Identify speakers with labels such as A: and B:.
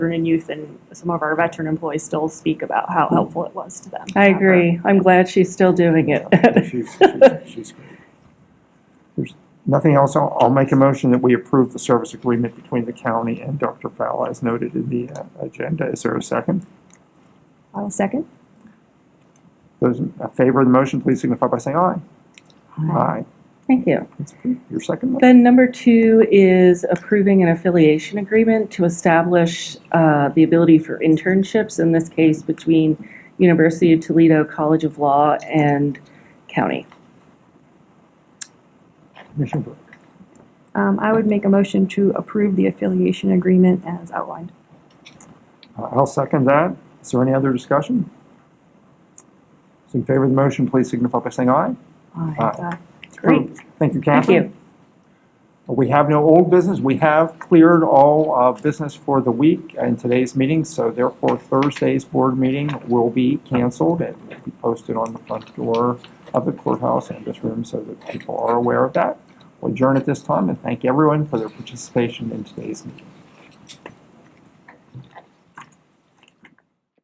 A: and youth and some of our veteran employees still speak about how helpful it was to them.
B: I agree. I'm glad she's still doing it.
C: She's, she's, she's great. There's nothing else. I'll, I'll make a motion that we approve the service agreement between the county and Dr. Fowle as noted in the uh, agenda. Is there a second?
A: Uh, I'll second.
C: Those in favor of the motion, please signify by saying aye. Aye.
B: Thank you.
C: That's approved. Your second one?
B: Then number two is approving an affiliation agreement to establish uh, the ability for internships, in this case between University of Toledo College of Law and county.
C: Commissioner Burke.
A: Um, I would make a motion to approve the affiliation agreement as outlined.
C: Uh, I'll second that. Is there any other discussion? Those in favor of the motion, please signify by saying aye. Aye. It's
B: Great.
C: approved. Uh, um, Thank you,
B: Thank
C: Catherine.
B: you.
C: We have no old business. We have cleared all uh, business for the week in today's meeting, so therefore Thursday's board meeting will be canceled and will be posted on the front door of the courthouse and this room so that people are aware of that. We'll adjourn at this time and thank everyone for their participation in today's meeting.